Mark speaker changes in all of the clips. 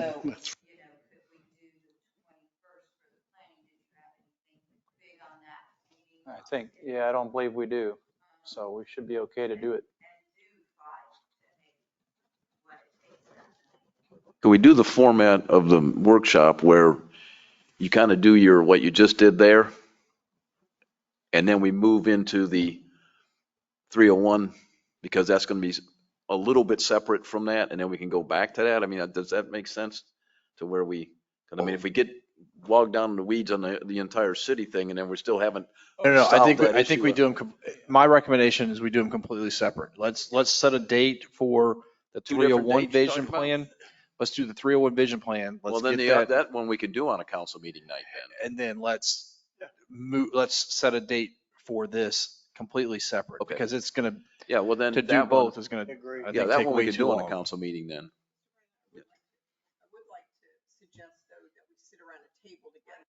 Speaker 1: So, you know,
Speaker 2: That's-
Speaker 1: could we do the twenty-first for the planning? Did you have anything big on that meeting?
Speaker 3: I think, yeah, I don't believe we do,
Speaker 1: Um,
Speaker 3: so we should be okay to do it.
Speaker 1: And do five to make what it takes.
Speaker 4: Could we do the format of the workshop where you kind of do your, what you just did there? And then we move into the 301, because that's going to be a little bit separate from that, and then we can go back to that? I mean, uh, does that make sense to where we, 'cause I mean, if we get bogged down in the weeds on the, the entire city thing, and then we still haven't,
Speaker 5: No, no, I
Speaker 4: solve
Speaker 5: think,
Speaker 4: that
Speaker 5: I think
Speaker 4: issue
Speaker 5: we
Speaker 4: of-
Speaker 5: do them, my recommendation is we do them completely separate. Let's, let's set a date for the
Speaker 4: Two different
Speaker 5: 301
Speaker 4: dates you're talking
Speaker 5: vision
Speaker 4: about?
Speaker 5: plan. Let's do the 301 vision plan.
Speaker 4: well,
Speaker 5: Let's
Speaker 4: then
Speaker 5: get
Speaker 4: the, uh,
Speaker 5: that.
Speaker 4: that one we could do on a council meeting night then.
Speaker 5: And then let's move, let's set a date for this completely separate.
Speaker 4: Okay.
Speaker 5: Because it's going
Speaker 4: Yeah, well,
Speaker 5: to,
Speaker 4: then.
Speaker 5: to do
Speaker 4: that one-
Speaker 5: both is going to,
Speaker 2: Agree.
Speaker 5: I
Speaker 4: Yeah,
Speaker 5: think,
Speaker 4: that
Speaker 5: take
Speaker 4: one we
Speaker 5: way
Speaker 4: could
Speaker 5: too
Speaker 4: do on a
Speaker 5: long.
Speaker 4: council meeting then.
Speaker 6: I would like to suggest, though, that we sit around a table together.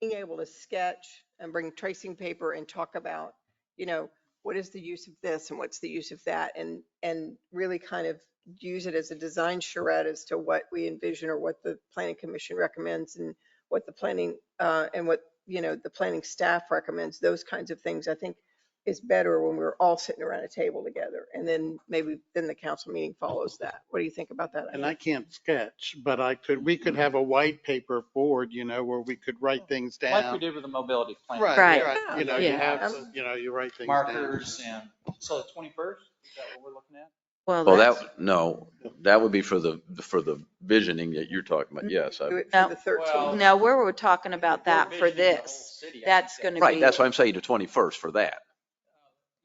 Speaker 6: Being able to sketch and bring tracing paper and talk about, you know, what is the use of this and what's the use of that? And, and really kind of use it as a design charrette as to what we envision or what the planning commission recommends and what the planning, uh, and what, you know, the planning staff recommends, those kinds of things, I think is better when we're all sitting around a table together. And then maybe, then the council meeting follows that. What do you think about that?
Speaker 2: And
Speaker 6: idea?
Speaker 2: I can't sketch, but I could, we could have a white paper board, you know, where we could write things
Speaker 3: Like we
Speaker 2: down.
Speaker 3: did with the mobility plan.
Speaker 2: Right,
Speaker 7: Right.
Speaker 2: right. You know, you
Speaker 7: Yeah.
Speaker 2: have, you know, you write things down.
Speaker 3: Markers and, so the 21st, is that what we're looking at?
Speaker 4: Well,
Speaker 7: that's-
Speaker 4: that, no, that would be for the, for the visioning that you're talking about, yes. I-
Speaker 6: Do it for
Speaker 7: No.
Speaker 6: the 13th.
Speaker 3: Well-
Speaker 7: No, we're, we're talking about
Speaker 3: We're
Speaker 7: that for
Speaker 3: visioning the whole
Speaker 7: this.
Speaker 3: city, I
Speaker 7: That's
Speaker 3: think.
Speaker 7: gonna be.
Speaker 4: Right, that's why I'm saying the 21st for that.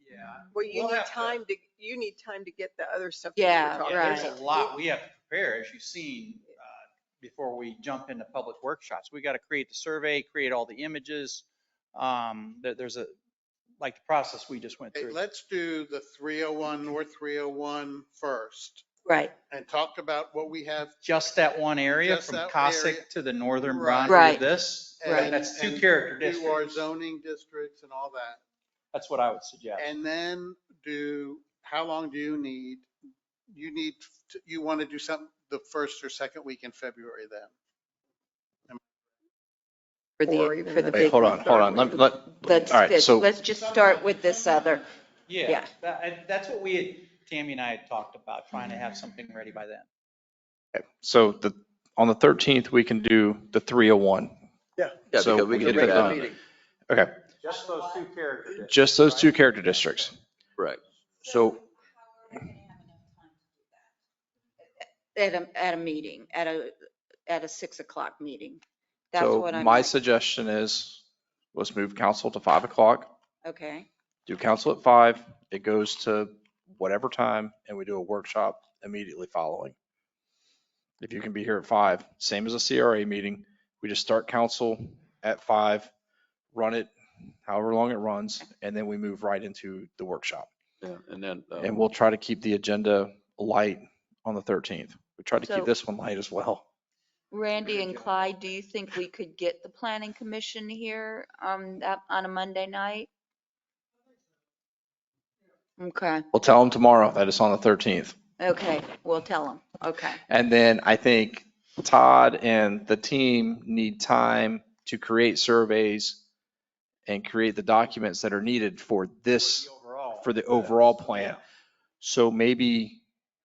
Speaker 3: Yeah,
Speaker 6: Well, you
Speaker 3: We'll
Speaker 6: need
Speaker 3: have to-
Speaker 6: time to, you need time to get the other stuff. that
Speaker 7: Yeah,
Speaker 6: we're talking
Speaker 3: yeah,
Speaker 6: about.
Speaker 3: there's a lot we have to prepare, as you've seen, uh, before we jump into public workshops. We got to create the survey, create all the images. Um, there- There's a, like the process we just went
Speaker 2: Hey,
Speaker 3: through.
Speaker 2: Let's do the 301, North 301 first
Speaker 7: Right,
Speaker 2: and talk about what we have.
Speaker 3: just that one area
Speaker 2: Just
Speaker 3: from
Speaker 2: that area.
Speaker 3: Cossack to the northern
Speaker 2: Right.
Speaker 3: Bronx with
Speaker 7: Right.
Speaker 3: this.
Speaker 2: and-
Speaker 7: Right.
Speaker 3: That's two
Speaker 2: and
Speaker 3: character
Speaker 2: Do our
Speaker 3: districts.
Speaker 2: zoning districts and all that.
Speaker 3: That's what I would suggest.
Speaker 2: And then do, how long do you need? You need, to- you want to do something the first or second week in February then?
Speaker 7: for
Speaker 6: Or
Speaker 7: the,
Speaker 6: even
Speaker 7: for the
Speaker 6: the-
Speaker 7: big.
Speaker 5: Hey, hold on, hold on. Let, let,
Speaker 7: Let's,
Speaker 5: all right,
Speaker 7: let's-
Speaker 5: so
Speaker 7: let's just start with this other,
Speaker 3: Yeah,
Speaker 7: Yeah.
Speaker 3: that- I- that's what we, had- Tammy and I had talked about, trying to have something ready by then.
Speaker 5: So the, on the 13th, we can do the 301.
Speaker 4: Yeah,
Speaker 5: So
Speaker 4: because we
Speaker 5: we
Speaker 4: can
Speaker 5: could
Speaker 4: do
Speaker 5: put
Speaker 4: that.
Speaker 5: that- Okay,
Speaker 3: Just those two characters.
Speaker 5: just those two character districts.
Speaker 4: Correct.
Speaker 5: So-
Speaker 1: How are we gonna have enough time to do that?
Speaker 7: at a, at a meeting, at a, at a six o'clock meeting. That's
Speaker 5: So
Speaker 7: what I'm,
Speaker 5: my
Speaker 7: like,
Speaker 5: suggestion is, let's move council to five o'clock,
Speaker 7: okay,
Speaker 5: do council at five, it goes to whatever time, and we do a workshop immediately following. If you can be here at five, same as a CRA meeting, we just start council at five, run it however long it runs, and then we move right into the workshop.
Speaker 4: Yeah, And then, uh,
Speaker 5: And we'll try to keep the agenda light on the 13th. We try to
Speaker 7: So-
Speaker 5: keep this one light as well.
Speaker 7: Randy and Clyde, do you think we could get the planning commission here on that, on a Monday night? Okay,
Speaker 5: We'll tell them tomorrow that it's on the 13th.
Speaker 7: okay, we'll tell them, okay.
Speaker 5: And then I think Todd and the team need time to create surveys and create the documents that are needed for this, for the overall plan. So maybe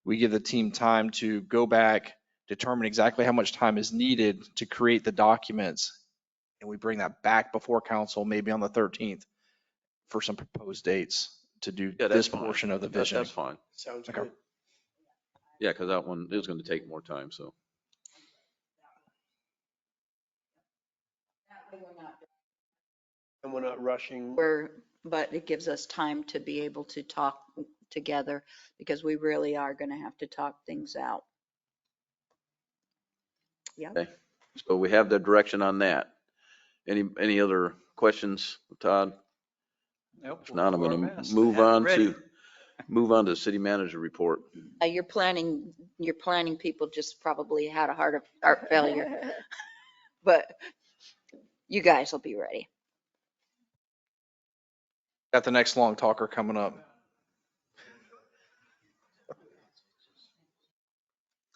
Speaker 5: we give the team time to go back, determine exactly how much time is needed to create the documents. And we bring that back before council, maybe on the 13th, for some proposed dates to do
Speaker 4: Yeah, that's
Speaker 5: this
Speaker 4: fine.
Speaker 5: portion of the
Speaker 4: that-
Speaker 5: vision.
Speaker 4: that's fine.
Speaker 2: Sounds
Speaker 5: Okay. good.
Speaker 4: Yeah, because that one is going to take more time, so.
Speaker 1: That way we're not
Speaker 8: And we're not rushing.
Speaker 7: We're, but it gives us time to be able to talk together because we really are going to have to talk things out.
Speaker 4: So we have the direction on that. Any, any other questions, Todd?
Speaker 3: Nope,
Speaker 4: If
Speaker 3: we'll
Speaker 4: not, I'm
Speaker 3: do our
Speaker 4: going
Speaker 3: best.
Speaker 4: to move
Speaker 3: Have it
Speaker 4: on
Speaker 3: ready.
Speaker 4: to, move on to city manager report.
Speaker 7: Uh, Your planning, your planning people just probably had a heart of, heart failure, but you guys will be ready.
Speaker 5: Got the next long talker coming up.